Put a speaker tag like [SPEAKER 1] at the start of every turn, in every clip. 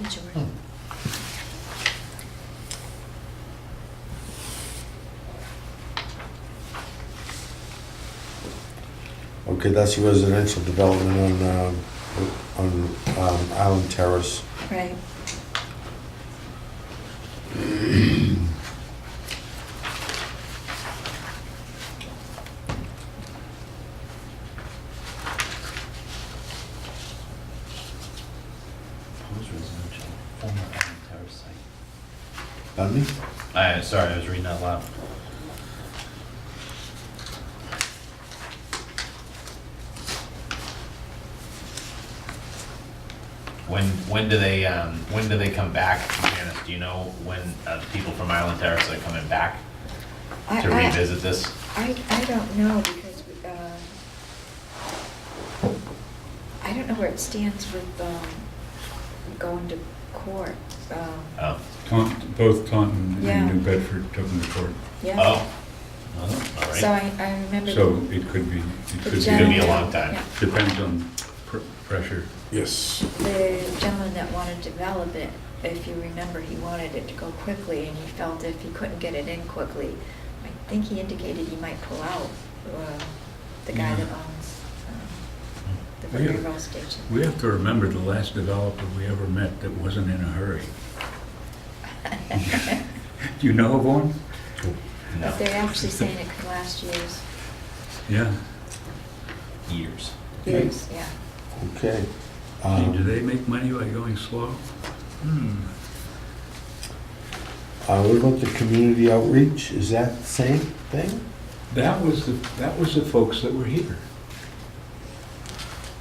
[SPEAKER 1] majority.
[SPEAKER 2] Okay, that's the residential development on, um, on um, Island Terrace.
[SPEAKER 1] Right.
[SPEAKER 3] Proposed residential, former Allen Terrace site.
[SPEAKER 2] Pardon me?
[SPEAKER 3] I, sorry, I was reading out loud. When, when do they, um, when do they come back, Janice, do you know when, uh, the people from Island Terrace are coming back
[SPEAKER 1] I-
[SPEAKER 3] to
[SPEAKER 1] I-
[SPEAKER 3] revisit this?
[SPEAKER 1] I, I don't know because, we, um, I don't know where it stands with um, going to court. um,
[SPEAKER 3] Oh,
[SPEAKER 4] Taunton, both Taunton
[SPEAKER 1] Yeah.
[SPEAKER 4] and New Bedford took them to court.
[SPEAKER 1] Yeah.
[SPEAKER 3] oh, Oh, all
[SPEAKER 1] So
[SPEAKER 3] right.
[SPEAKER 1] I, I remember.
[SPEAKER 4] So it could be, it
[SPEAKER 1] the
[SPEAKER 4] could be.
[SPEAKER 3] gentleman- be a
[SPEAKER 1] gentleman-
[SPEAKER 3] long time.
[SPEAKER 1] yeah,
[SPEAKER 4] Depends on pr- pressure.
[SPEAKER 2] Yes.
[SPEAKER 1] The gentleman that wanted to develop it, if you remember, he wanted it to go quickly and he felt if he couldn't get it in quickly, I think he indicated he might pull out, uh, the guy that owns um, the
[SPEAKER 4] Really?
[SPEAKER 1] railroad station.
[SPEAKER 4] We have to remember the last developer we ever met that wasn't in a hurry. Do you know of one?
[SPEAKER 1] But
[SPEAKER 3] No,
[SPEAKER 1] they're actually saying it could last years,
[SPEAKER 4] Yeah.
[SPEAKER 3] years.
[SPEAKER 1] years, yeah.
[SPEAKER 2] Okay.
[SPEAKER 4] Gee,
[SPEAKER 2] Um,
[SPEAKER 4] Do they make money by going slow? Hmm.
[SPEAKER 2] Uh, what about the community outreach? Is that the same thing?
[SPEAKER 4] That was the, that was the folks that were here.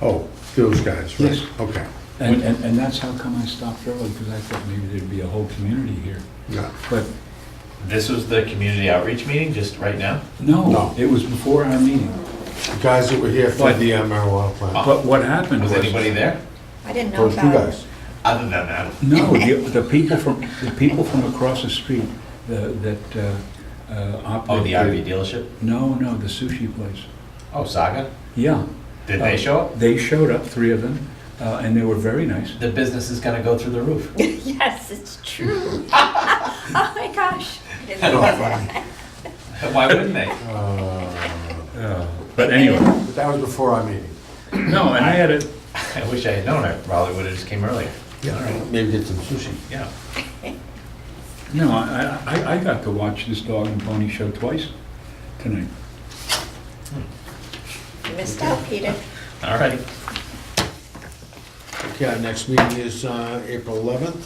[SPEAKER 2] Oh, those guys, right?
[SPEAKER 4] Yes.
[SPEAKER 2] Okay.
[SPEAKER 4] And, and and that's how come I stopped early, because I thought maybe there'd be a whole community here.
[SPEAKER 2] Yeah.
[SPEAKER 4] But
[SPEAKER 3] This was the community outreach meeting, just right now?
[SPEAKER 2] No.
[SPEAKER 4] no, it was before our meeting.
[SPEAKER 2] The guys that were here for
[SPEAKER 4] But-
[SPEAKER 2] the uh, marijuana plant.
[SPEAKER 4] But what happened was...
[SPEAKER 3] Was anybody there?
[SPEAKER 1] I didn't know
[SPEAKER 2] Those two
[SPEAKER 1] about it.
[SPEAKER 2] guys.
[SPEAKER 3] Other than that,
[SPEAKER 4] No, the, the people from, the people from across the street the- that uh, uh, operate...
[SPEAKER 3] oh, the RV dealership?
[SPEAKER 4] No, no, the sushi place.
[SPEAKER 3] Oh, Saga? Oh.
[SPEAKER 4] Yeah.
[SPEAKER 3] Did they show up?
[SPEAKER 4] They showed up, three of them, uh, and they were very nice.
[SPEAKER 3] The business is gonna go through the roof.
[SPEAKER 1] Yes, it's true. Oh my gosh. I didn't know that.
[SPEAKER 3] Why wouldn't they?
[SPEAKER 2] Uh,
[SPEAKER 4] Uh, But anyway,
[SPEAKER 2] But that was before our meeting.
[SPEAKER 4] no, and I had it,
[SPEAKER 3] I wish I had known, I probably would've just came earlier.
[SPEAKER 2] Yeah, maybe get some sushi.
[SPEAKER 3] Yeah.
[SPEAKER 4] no, I, I, I got to watch this dog and pony show twice tonight.
[SPEAKER 1] You missed out, Peter.
[SPEAKER 3] All right.
[SPEAKER 2] Okay, our next meeting is uh, April 11th.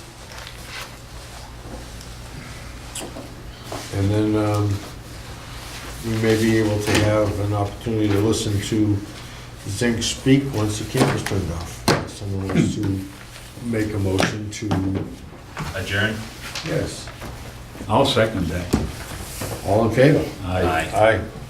[SPEAKER 2] And then um, we may be able to have an opportunity to listen to Zink speak once the camera's turned off. Someone wants to make a motion to,
[SPEAKER 3] Adjourn?
[SPEAKER 2] yes,
[SPEAKER 4] I'll second that.
[SPEAKER 2] all in favor?
[SPEAKER 3] Aye.
[SPEAKER 2] Aye.